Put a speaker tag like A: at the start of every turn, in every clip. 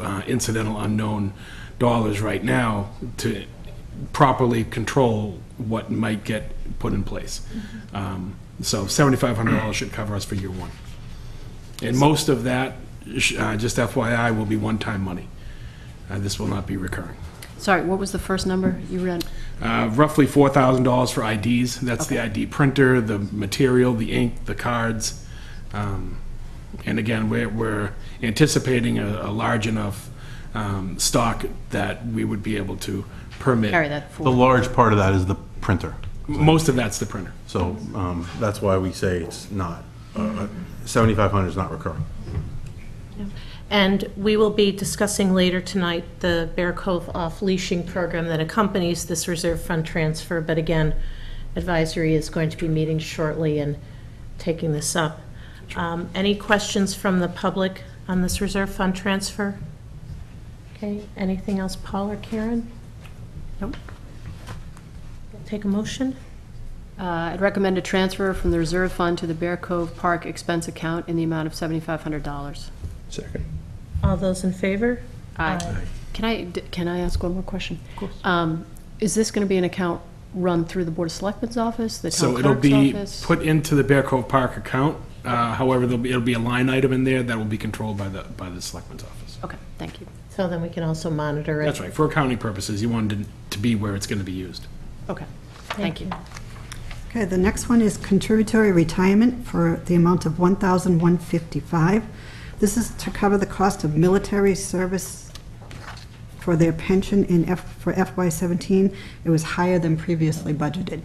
A: uh, incidental unknown dollars right now to properly control what might get put in place. Um, So $7,500 should cover us for year one. And most of that, sh- uh, just FYI, will be one-time money. Uh, This will not be recurring.
B: Sorry, what was the first number you read?
A: Uh, Roughly $4,000 for IDs. That's the ID printer, the material, the ink, the cards. Um, And again, we're- we're anticipating a a large enough um, stock that we would be able to permit.
B: Carry that
C: The
B: forward.
C: large part of that is the printer.
A: Most of that's the printer.
C: So um, that's why we say it's not, uh, 7,500 is not recurring.
D: And we will be discussing later tonight the Bear Cove off-leashing program that accompanies this reserve fund transfer. But again, advisory is going to be meeting shortly and taking this up. Um, Any questions from the public on this reserve fund transfer? Okay, anything else, Paul or Karen?
B: Nope.
D: Take a motion?
B: Uh, I'd recommend a transfer from the reserve fund to the Bear Cove Park expense account in the amount of $7,500.
C: Second.
D: All those in favor?
B: Aye. Can I, d- can I ask one more question? Of course. Is this going to be an account run through the Board of Selectmen's office, the town
A: So it'll
B: clerk's
A: be
B: office?
A: put into the Bear Cove Park account. Uh, However, there'll be, it'll be a line item in there that will be controlled by the, by the selectman's office.
B: Okay, thank you.
D: So then we can also monitor it.
A: That's right, for accounting purposes, you wanted it to be where it's going to be used.
B: Okay, thank you.
E: Okay, the next one is contributory retirement for the amount of 1155 This is to cover the cost of military service for their pension in F, for FY '17. It was higher than previously budgeted.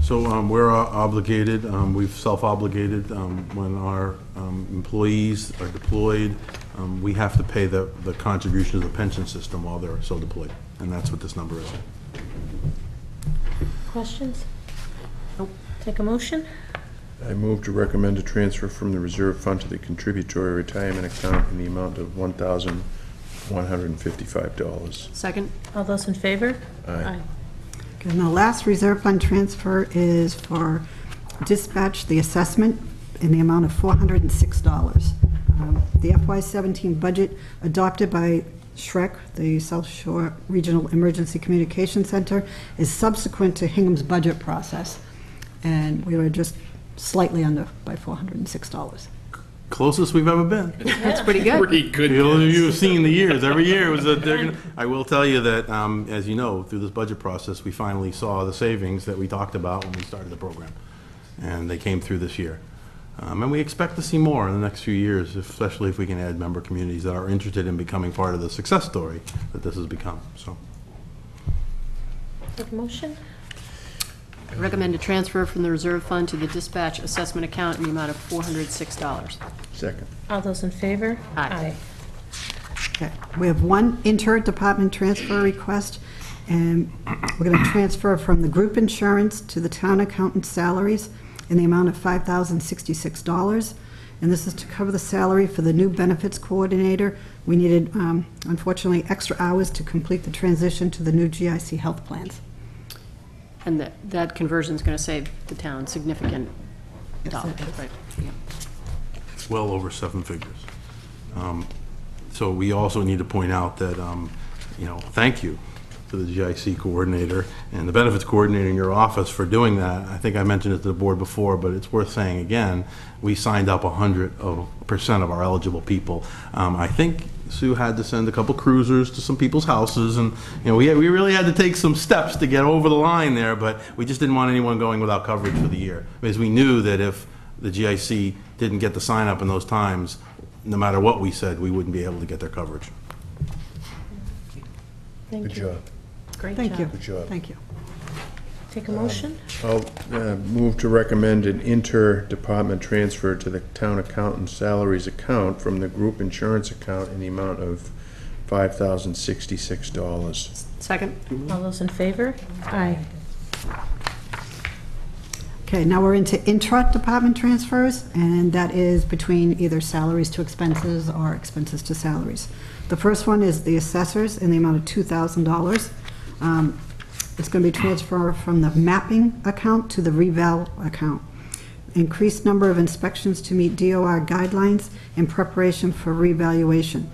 C: So um, we're uh, obligated, um, we've self-obligated, um, when our um, employees are deployed, um, we have to pay the the contribution to the pension system while they're so deployed. And that's what this number is.
D: Questions? Nope. Take a motion?
F: I move to recommend a transfer from the reserve fund to the contributory retirement account in the amount of one thousand one hundred and fifty-five dollars.
B: Second?
D: All those in favor?
F: Aye.
E: Okay, And the last reserve fund transfer is for dispatch, the assessment, in the amount of $406. Um, The FY '17 budget adopted by SHREC, the South Shore Regional Emergency Communication Center, is subsequent to Hingham's budget process, and we were just slightly under by $406.
C: Closest we've ever been.
B: That's pretty good.
A: Pretty good.
C: You'll- You've seen the years, every year was that they're gonna, I will tell you that, um, as you know, through this budget process, we finally saw the savings that we talked about when we started the program. And they came through this year. Um, and we expect to see more in the next few years, especially if we can add member communities that are interested in becoming part of the success story that this has become, so.
D: Take a motion?
B: Recommend a transfer from the reserve fund to the dispatch assessment account in the amount of $406.
F: Second.
D: All those in favor?
B: Aye.
E: Okay, We have one interdepartment transfer request, and we're going to transfer from the group insurance to the town accountant's salaries in the amount of $5,066. And this is to cover the salary for the new benefits coordinator. We needed, um, unfortunately, extra hours to complete the transition to the new GIC health plans.
B: And that, that conversion's going to save the town significant
E: Yes, it
B: dollars,
E: is.
B: right? Yeah.
C: It's well over seven figures. Um, So we also need to point out that, um, you know, thank you to the GIC coordinator and the benefits coordinator in your office for doing that. I think I mentioned it to the board before, but it's worth saying again, we signed up 100% of our eligible people. Um, I think Sue had to send a couple cruisers to some people's houses, and, you know, we, we really had to take some steps to get over the line there, but we just didn't want anyone going without coverage for the year. Because we knew that if the GIC didn't get the sign-up in those times, no matter what we said, we wouldn't be able to get their coverage.
F: Good job.
D: Great
E: Thank you.
D: job.
F: Good job.
E: Thank you.
D: Take a motion?
F: I'll uh, move to recommend an inter-department transfer to the town accountant salaries account from the group insurance account in the amount of five thousand sixty-six dollars.
B: Second?
D: All those in favor? Aye.
E: Okay, now we're into intra-department transfers, and that is between either salaries to expenses or expenses to salaries. The first one is the assessors in the amount of $2,000. Um, It's going to be transferred from the mapping account to the reval account. Increased number of inspections to meet DOR guidelines in preparation for revaluation.